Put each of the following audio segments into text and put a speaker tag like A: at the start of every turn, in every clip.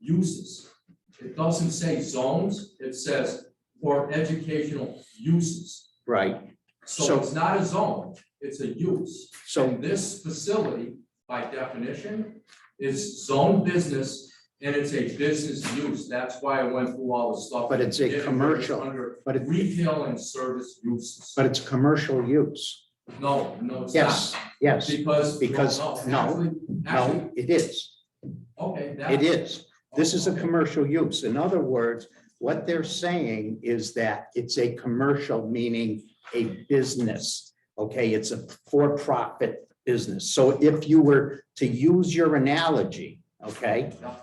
A: uses. It doesn't say zones, it says for educational uses.
B: Right,
A: So
B: So-
A: it's not a zone, it's a use.
B: so,
A: And this facility, by definition, is zone business and it's a business use. That's why I went through all the stuff.
B: but it's a
A: It's
B: commercial,
A: Under
B: but it,
A: retail and service uses.
B: but it's commercial use.
A: No, no, it's not.
B: Yes, yes,
A: Because.
B: Because- no,
A: actually- Actually,
B: no, it is,
A: okay, that.
B: it is. This is a
A: okay.
B: commercial use. In other words, what they're saying is that it's a commercial, meaning a business. Okay, it's a for-profit business. So if you were to use your analogy, okay,
A: Yeah.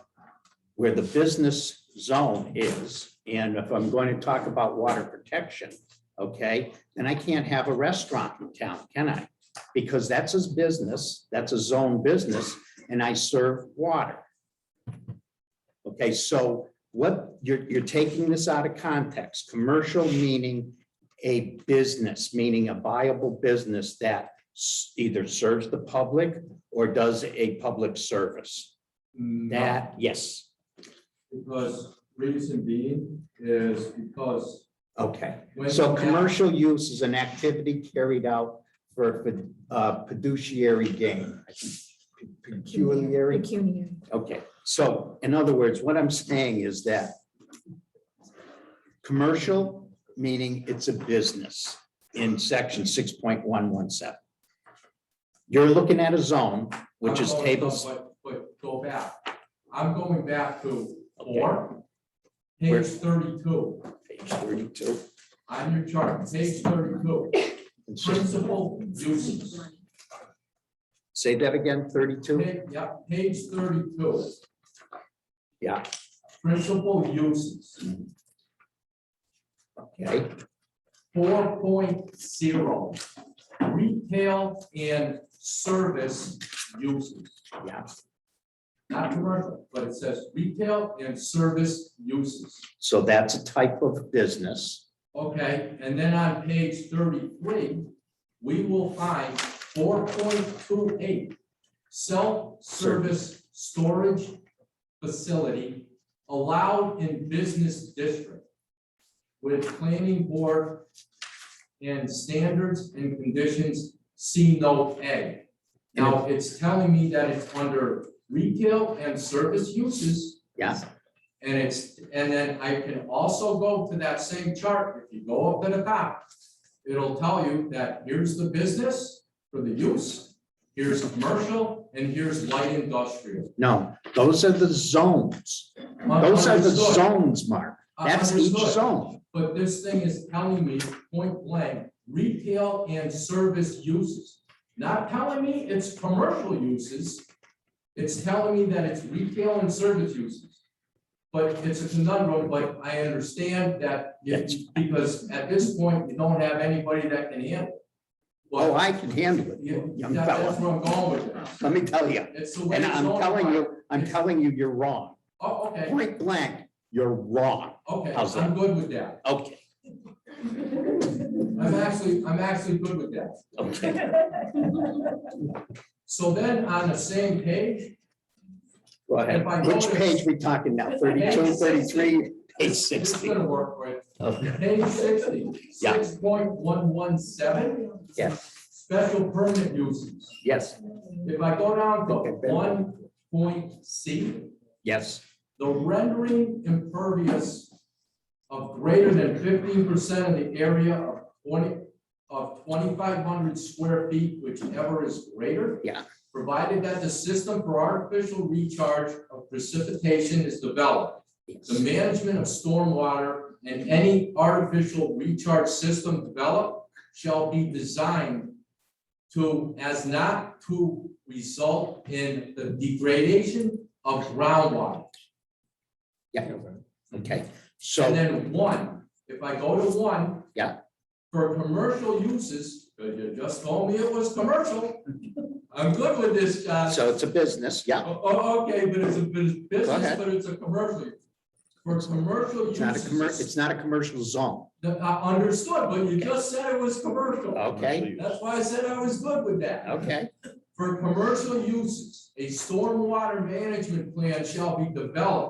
B: where the business zone is, and if I'm going to talk about water protection, okay, then I can't have a restaurant in town, can I? Because that's his business, that's a zone business, and I serve water. Okay, so what, you're, you're taking this out of context, commercial meaning a business, meaning a viable business that s- either serves the public or does a public service.
A: Mm, No.
B: That, yes,
A: Because reason being is because
B: okay.
A: when.
B: So
A: you have-
B: commercial use is an activity carried out for uh, fiduciary gain. Peculiarity,
C: Pecuniary.
B: okay. So in other words, what I'm saying is that commercial, meaning it's a business in section six point one one seven. You're looking at a zone, which
A: I'm
B: is
A: going-
B: tables,
A: But, but go back. I'm going back to four.
B: Where-
A: Page thirty-two,
B: page thirty-two.
A: on your chart, page thirty-two,
B: And so-
A: principal uses.
B: Say that again, thirty-two?
A: Pa- Yeah, page thirty-two.
B: Yeah.
A: Principal uses,
B: Okay,
A: four point zero, retail and service uses.
B: yeah.
A: not commercial, but it says retail and service uses.
B: So that's a type of business.
A: Okay, and then on page thirty-three, we will find four point two eight. Self-service storage facility allowed in business district. With planning board and standards and conditions, C note A. Now, it's telling me that it's under retail and service uses.
B: Yeah.
A: And it's, and then I can also go to that same chart, if you go up to the top, it'll tell you that here's the business for the use, here's commercial, and here's light industrial.
B: No, those are the zones. Those are the
A: Understood.
B: zones, Mark. That's each
A: Understood.
B: zone.
A: But this thing is telling me point blank, retail and service uses. Not telling me it's commercial uses. It's telling me that it's retail and service uses. But it's a conundrum, but I understand that if, because at this point, you don't have anybody that can handle. it.
B: Oh,
A: But
B: I can handle it,
A: you-
B: young
A: that- that's
B: fella.
A: where I'm going with this.
B: Let me tell you,
A: It's the way.
B: and
A: it's
B: I'm
A: going.
B: telling you, I'm telling you, you're wrong.
A: Oh, okay,
B: Point blank, you're wrong.
A: okay,
B: How's that?
A: I'm good with that.
B: Okay,
A: I'm actually, I'm actually good with that.
B: okay.
A: So then on the same page,
B: Go ahead.
A: If I
B: Which
A: notice-
B: page we talking now? Thirty-two,
A: Page
B: thirty-three, page
A: it's
B: sixty?
A: gonna work for it.
B: Okay.
A: Page sixty,
B: Yeah.
A: six point one one seven.
B: Yes.
A: Special permit uses.
B: Yes,
A: If I go down to
B: Okay, Ben.
A: one point C,
B: yes,
A: the rendering impervious of greater than fifteen percent of the area of twenty, of twenty-five hundred square feet, whichever is greater.
B: Yeah.
A: Provided that the system for artificial recharge of precipitation is developed. the management of stormwater and any artificial recharge system developed shall be designed to, as not to result in the degradation of groundwater.
B: okay.
A: And
B: So,
A: then one, if I go to one.
B: Yeah.
A: For commercial uses, because you just told me it was commercial, I'm good with this, John.
B: so it's a business, yeah.
A: Oh, oh, okay, but it's a bu- business,
B: ahead.
A: but it's a commercial. For commercial
B: It's not a
A: uses.
B: commer, it's not a commercial zone,
A: No, I understood, but you just said it was commercial.
B: okay?
A: That's why I said I was good with that.
B: Okay,
A: For commercial uses, a stormwater management plan shall be developed